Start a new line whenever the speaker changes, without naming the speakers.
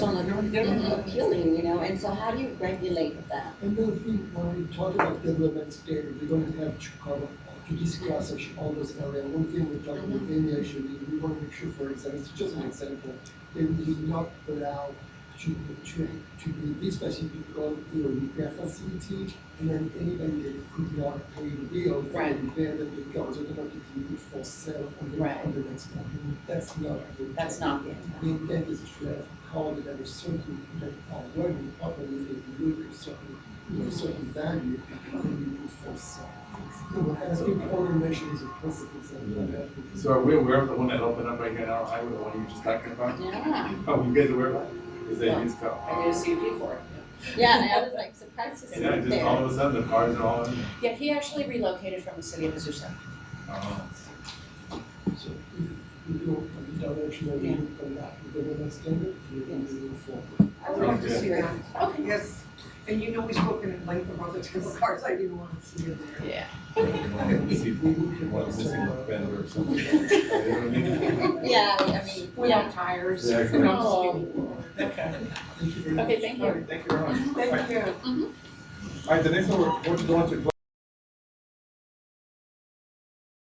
they're appealing, you know, and so how do you regulate that?
And then if we, when we talk about development standard, we're gonna have to cover PDC classification, all those areas. One thing we talked about earlier should be, we wanna make sure, for example, it's just an example, that we do not allow to, to, to be this specific because, you know, repair facility, and then anybody that could not pay the bill for
Right.
repair that they got, so they're not using it for sale on the,
Right.
on the next one. That's not. the-
That's not the
the intent is to have called that a certain, that are working properly, if you look at certain, you know, certain value, then you put for sale. So, I think automation is a principle that.
So are we aware of the one that opened up right here on our highway, the one you were just talking about?
Yeah,
Oh, you guys aware of that? Is that used car?
I did a CUP for it.
yeah, and I was like surprised to see
Yeah,
it
just all
there.
of a sudden the cars are all in. there.
Yeah, he actually relocated from the city of Azusa.
Oh.
So if you go in the direction that
Yeah.
you come back with the government standard, you can move forward.
I would love to see that.
Okay.
Yes, and you know we've spoken at length about the type of cars I didn't want to see in there.
Yeah.
You see One missing fender or something. You know what I mean?
Yeah, I mean, yeah.
Without tires.
Yeah,
without
exactly.
speeding.
Thank you very
Oh,
much.
Okay, thank you.
All right, Thank you very much. All right.
Thank you.
All right, the next one, we're going to go into